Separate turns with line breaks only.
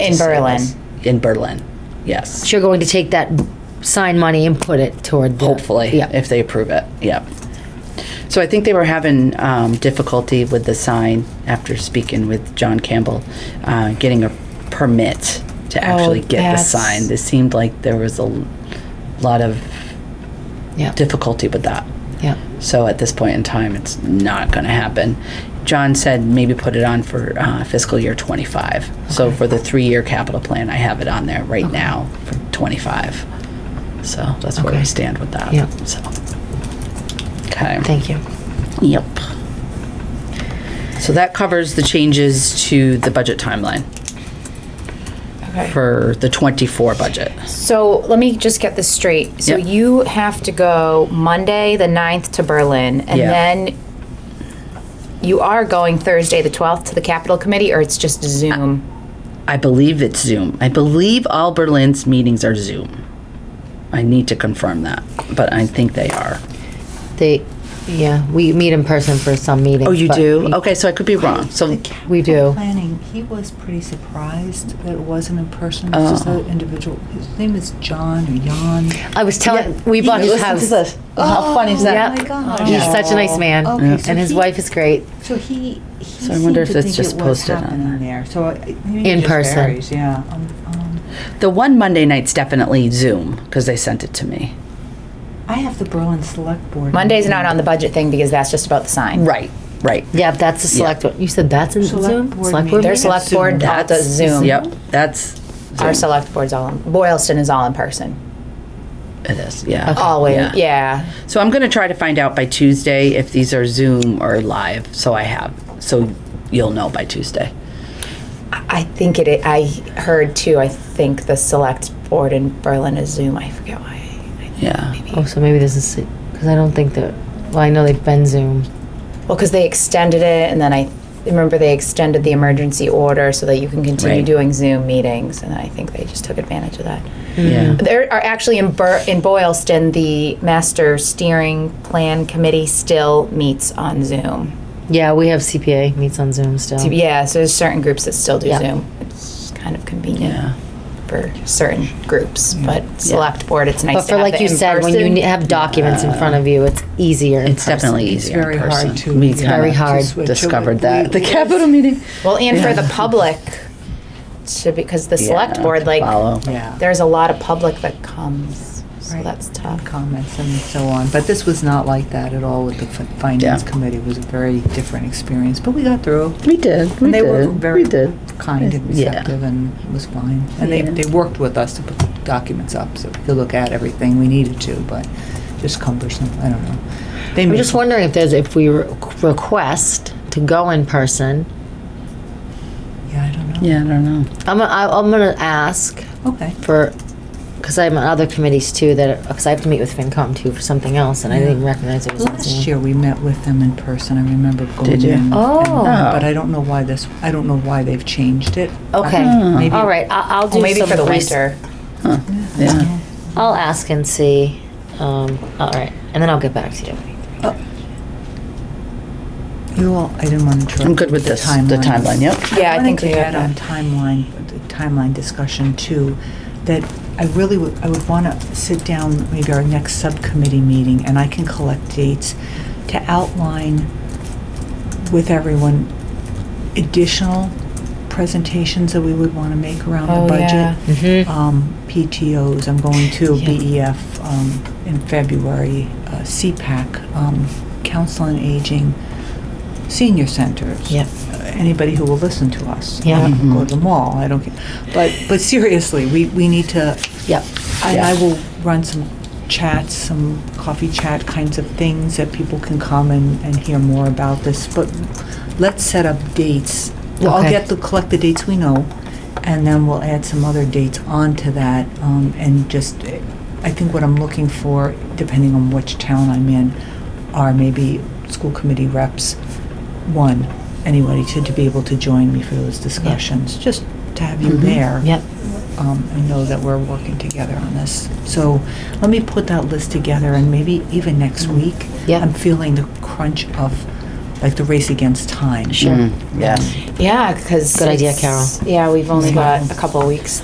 In Berlin.
In Berlin, yes.
So you're going to take that sign money and put it toward the.
Hopefully,
Yeah.
if they approve it, yeah. So I think they were having um, difficulty with the sign after speaking with John Campbell, uh, getting a permit to actually get the
Oh, that's-
sign. It seemed like there was a l- lot of
Yeah.
difficulty with that.
Yeah.
So at this point in time, it's not going to happen. John said maybe put it on for uh, fiscal year 25. So for the three-year capital plan, I have it on there right now for 25. So that's where
Okay.
we stand with that.
Yeah.
So. Okay.
Thank you.
Yep. So that covers the changes to the budget timeline
Okay.
for the 24 budget.
So let me just get this straight. So
Yep.
you have to go Monday, the 9th to Berlin, and
Yeah.
then you are going Thursday, the 12th to the Capitol Committee, or it's just Zoom?
I believe it's Zoom. I believe all Berlin's meetings are Zoom. I need to confirm that, but I think they are.
They, yeah, we meet in person for some meetings.
Oh, you
but
do?
we-
Okay, so I could be wrong. So,
We do.
Planning, he was pretty surprised that it wasn't in person, it was just
Uh-huh.
an individual. His name is John or Jan.
I was telling, we bought his house.
How funny is Oh,
Yep.
Oh my gosh.
He's such a nice man.
Okay, Yeah. so
And his
he-
wife is great.
So he, he
So I wonder
seemed
if
to
it's
think
just
it was
posted on
happening there, so. I- maybe it
In
just
person.
varies, Yeah. Um, um,
The one Monday night's definitely Zoom because they sent it to me.
I have the Berlin Select Board.
Monday's
meeting.
not on the budget thing because that's just about the sign.
Right, right.
Yeah, that's the select one. You said that's in
Select
Zoom?
board
Select
meeting.
board?
Their
meeting?
select board all does Zoom.
Yep, that's
Our
Zoom.
select board's all, Boylston is all in person.
It is, yeah.
Always, yeah.
So I'm going to try to find out by Tuesday if these are Zoom or live. So I have, so you'll know by Tuesday.
I think it, i- I heard too, I think the select board in Berlin is Zoom, I forget why.
Yeah.
Oh, so maybe this is, because I don't think that, well, I know they've been Zoom.
Well, because they extended it and then I remember they extended the emergency order so that you can continue
Right.
doing Zoom meetings and I think they just took advantage of that.
Yeah.
There are actually in, Bur- in Boylston, the master steering plan committee still meets on Zoom.
Yeah, we have CPA meets on Zoom still.
So, yeah, so there's certain groups that still do
Oh. Yeah.
Zoom. It's kind of convenient
Yeah.
for certain groups, but select board, it's nice
Mm. But
to
for
have
like
the
you said, when you
in-person.
ne- have documents in front of you, it's easier. in
It's
person.
definitely easier. in
very hard
person.
to-
We
It's
kinda
very hard.
To switch over.
Discovered
We-
that. The capital meeting.
Well, and for the public, to, because the select
Yeah,
board,
to
like,
follow.
Yeah.
there's a lot of public that comes, so
Right.
that's tough.
Comments and so on, but this was not like that at all with the fi- Finance
Yeah.
Committee, it was a very different experience, but we got through.
We did. We
And they
did.
were very
we did.
kind and
Yeah.
receptive and it was fine. And they,
Yeah.
they worked with us to put the documents up so we could look at everything we needed to, but just cumbersome, I don't know. They
I'm
made-
just wondering if there's, if we re- request to go in person,
Yeah, I don't know.
Yeah, I don't know.
I'm, gonna- I- I'm gonna ask
Okay.
for, because I'm on other committees too, that, because I have to meet with FinCom too for something else, and I didn't recognize it was on
Last
Zoom.
year, we met with them in person, I remember going in.
Did you?
and-
Oh.
But I don't know why this, I don't know why they've changed it.
Okay,
Uh, maybe-
all right, I- I'll do
Well, maybe
some
for the
res-
winter.
Yeah.
I'll ask and see, um, all right, and then I'll get back to you.
You all, I didn't want to interrupt.
I'm good with
the
this, the timeline, yep.
Yeah, I think we
wanted to
have
add on timeline, the timeline discussion too, that I really would, I would want to sit down, maybe our next subcommittee meeting, and I can collect dates to outline with everyone additional presentations that we would want to make around
Oh,
the
yeah.
budget.
Mhm.
Um, PTOs, I'm going to
Yeah.
BEF um, in February, uh, CPAC, um, Council on Aging, senior centers. Uh,
Yep.
Anybody who will listen to us.
Yeah.
I don't Go to the mall, I don't, care. but, but seriously, we, we need to,
Yep,
I, I
Yeah.
will run some chats, some coffee chat kinds of things that people can come and, and hear more about this, but let's set up dates. Well, I'll
Okay.
get the, collect the dates we know, and then we'll add some other dates onto that, um, and just, eh, I think what I'm looking for, depending on which town I'm in, are maybe school committee reps, one, anybody to, to be able to join me for those discussions, just to have you there
yep,
um, I know that we're working together on this. So let me put that list together and maybe even next week.
Yeah.
I'm feeling the crunch of like the race against time.
Sure. Mm. Yes.
Yeah, because.
Good idea, Carol.
Yeah, we've only got a couple of weeks